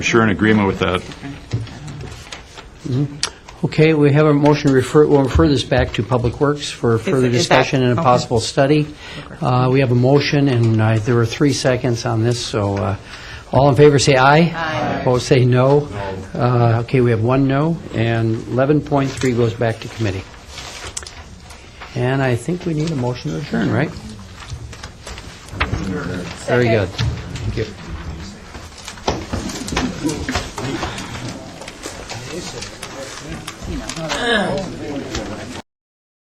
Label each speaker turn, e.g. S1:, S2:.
S1: Sure in agreement with that.
S2: Okay, we have a motion to refer, we'll refer this back to Public Works for further
S3: is that-
S2: discussion and a
S3: okay.
S2: possible study. Uh, We have a motion, and uh, there were three seconds on this, so uh, all in favor say aye. Aye. Opposed say no. No. Okay, we have one no, and 11.3 goes back to committee. And I think we need a motion to adjourn, right? Very good. Thank you.